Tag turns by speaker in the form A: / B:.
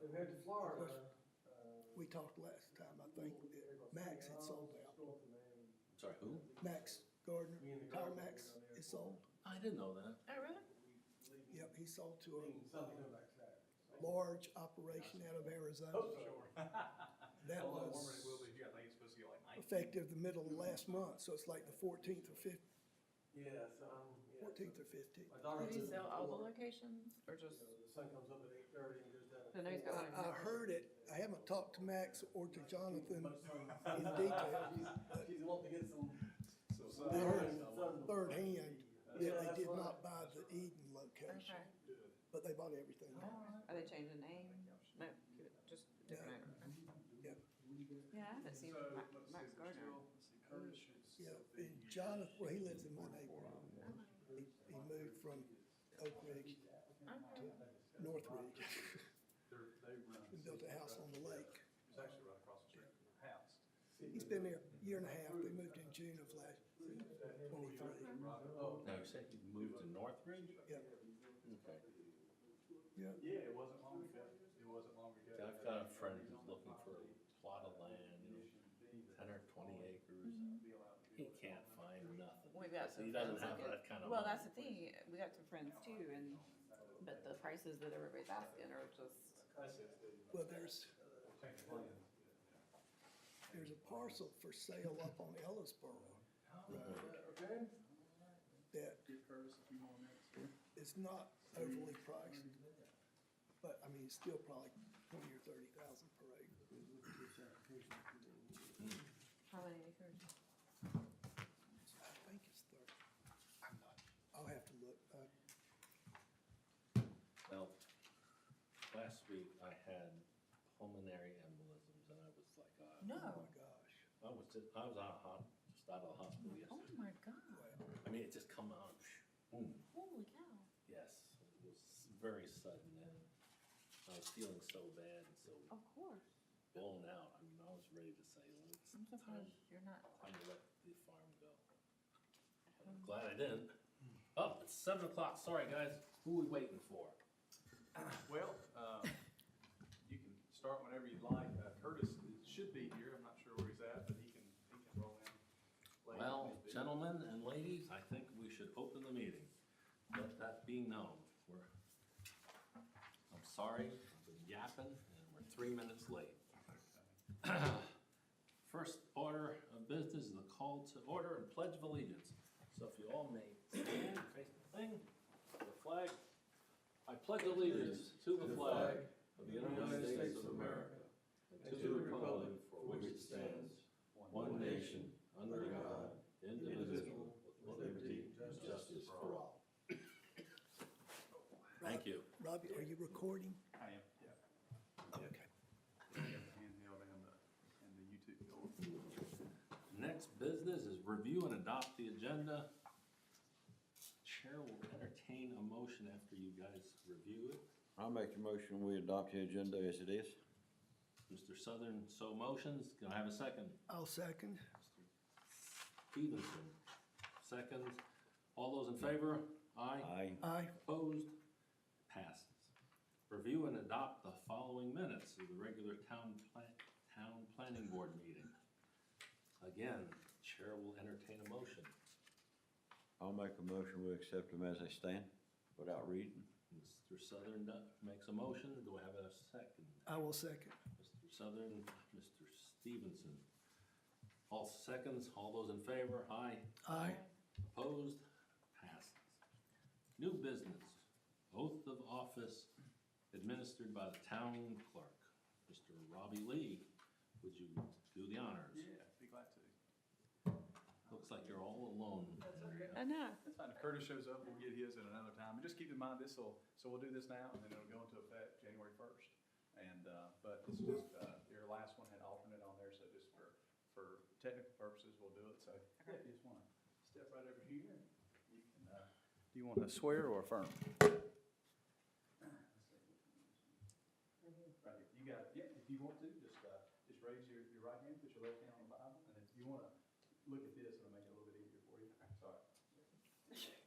A: compared to Florida, uh.
B: uh, We talked last time, I think, that Max had sold out.
C: I'm sorry, who?
B: Max Gardner, Power Max is sold.
C: I didn't know that.
D: Oh, really?
B: Yep, he sold to
A: Something like that.
B: a
A: Oh,
B: large operation out of Arizona.
A: Sure.
B: That
E: How long warmer it will
B: was
E: be here, I think it's supposed to be like nine.
B: effective the middle of last month, so it's like the fourteenth or fif,
A: Yes, um, yeah.
B: fourteenth or fifteenth.
A: My daughter
D: Did he
A: lives in
D: sell all the
A: Florida.
D: locations or just?
A: You know, The sun comes up at eight thirty and goes down. at
D: I know he's got
A: four.
B: I,
D: one.
B: I heard it, I haven't talked to Max or to Jonathan
A: But some-
B: in detail,
A: She's- She's wanting to get some.
E: So, so-
B: They heard
A: some-
B: third hand, that
A: Yeah,
B: they
A: that's
B: did
A: right.
B: not buy the Eden location,
D: Okay.
B: but they bought everything else.
D: Are they changing name? No, just different owner.
B: Yeah.
D: Yeah, I haven't seen
E: So,
D: Ma-
E: let's see,
D: Max
E: we're
D: Gardner.
E: still- let's see, Curtis should
B: Yeah,
E: still be
B: and
E: here.
B: Jonathan, well, he lives in my neighborhood. He, he moved from Oak Ridge
D: Okay.
B: North Ridge
E: They're, they run.
B: and built a house on the lake.
E: It's actually right across the street from her house.
B: He's been there a year and a half. They moved in June of last, twenty-three.
A: Oh,
C: No, you said you moved to Northridge?
B: Yeah,
C: Okay.
B: yeah.
E: Yeah, it wasn't long ago, it wasn't long ago.
C: I've got a friend who's looking for a plot of land, you know, ten or twenty acres. He can't find nothing.
D: We've got some.
C: He doesn't
D: friends
C: have
D: get-
C: that kind of
D: Well,
C: money.
D: that's the thing, we got some friends too, and, but the prices that everybody's asking are just,
E: That's it.
B: Well, there's,
E: Take the land.
B: there's a parcel for sale up on Ellisboro
A: okay.
B: that
E: Get Curtis if you want next.
B: is not overly priced. But I mean, it's still probably twenty or thirty thousand per acre.
D: how many acres?
B: I think it's thirty. I'm not, I'll have to look. Uh,
C: Now, last week I had pulmonary embolisms and I was like, uh,
B: Oh my
D: No.
B: gosh.
C: I was just, I was out of hos, just out of the hospital
D: Oh
C: yesterday.
D: my God,
B: Wow.
C: I mean, it just come out, boom,
D: holy cow.
C: yes, it was very sudden and I was feeling so bad and so
D: Of course,
C: blown out. I mean, I was ready to say, well, it's
D: I'm surprised
C: time,
D: you're not.
C: time to let the farm go. I'm glad I didn't. Oh, it's seven o'clock, sorry guys, who we waiting for?
E: Well, um, you can start whenever you'd like. Uh, Curtis should be here, I'm not sure where he's at, but he can, he can roll in. later if
C: Well,
E: need be.
C: gentlemen and ladies, I think we should open the meeting. Let that be known. We're, I'm sorry, I've been yapping, and we're three minutes late. First order of business is the call to order and pledge of allegiance. So if you all may stand, face the thing, the flag. I pledge allegiance to the flag of the United States of America and to the republic for which it stands, one nation, under God, indivisible, with liberty and justice for all. Thank you.
B: Robbie, are you recording?
E: I am, yeah.
B: Okay.
E: Yeah, I got the handheld and the, and the YouTube going.
C: Next business is review and adopt the agenda. Chair will entertain a motion after you guys review it.
F: I'll make the motion, we adopt the agenda as it is.
C: Mr. Southern, so motions. Can I have a second?
B: I'll second.
C: Stevenson, seconds. All those in favor?
F: Aye.
B: Aye.
C: Opposed? Passes. Review and adopt the following minutes of the regular town plan, town planning board meeting. Again, chair will entertain a motion.
F: I'll make a motion, we accept them as they stand, without reading.
C: Mr. Southern do- makes a motion. Do I have a second?
B: I will second.
C: Mr. Southern, Mr. Stevenson. All seconds, all those in favor, aye.
B: Aye.
C: Opposed, passes. New business, oath of office administered by the town clerk. Mr. Robbie Lee, would you do the honors?
E: Yeah, be glad to.
C: Looks like you're all alone.
D: I know.
E: That's fine. If Curtis shows up, we'll get his at another time. And just keep in mind, this'll, so we'll do this now, and then it'll go into effect January first. And, uh, but this is just, uh, your last one had alternate on there, so just for, for technical purposes, we'll do it, so. yeah, you just wanna step right over here, and you can, uh. Do you wanna swear or affirm? Right here. You got it. Yeah, if you want to, just, uh, just raise your, your right hand, put your left hand on the Bible, and if you wanna look at this, it'll make it a little bit easier for you. Sorry.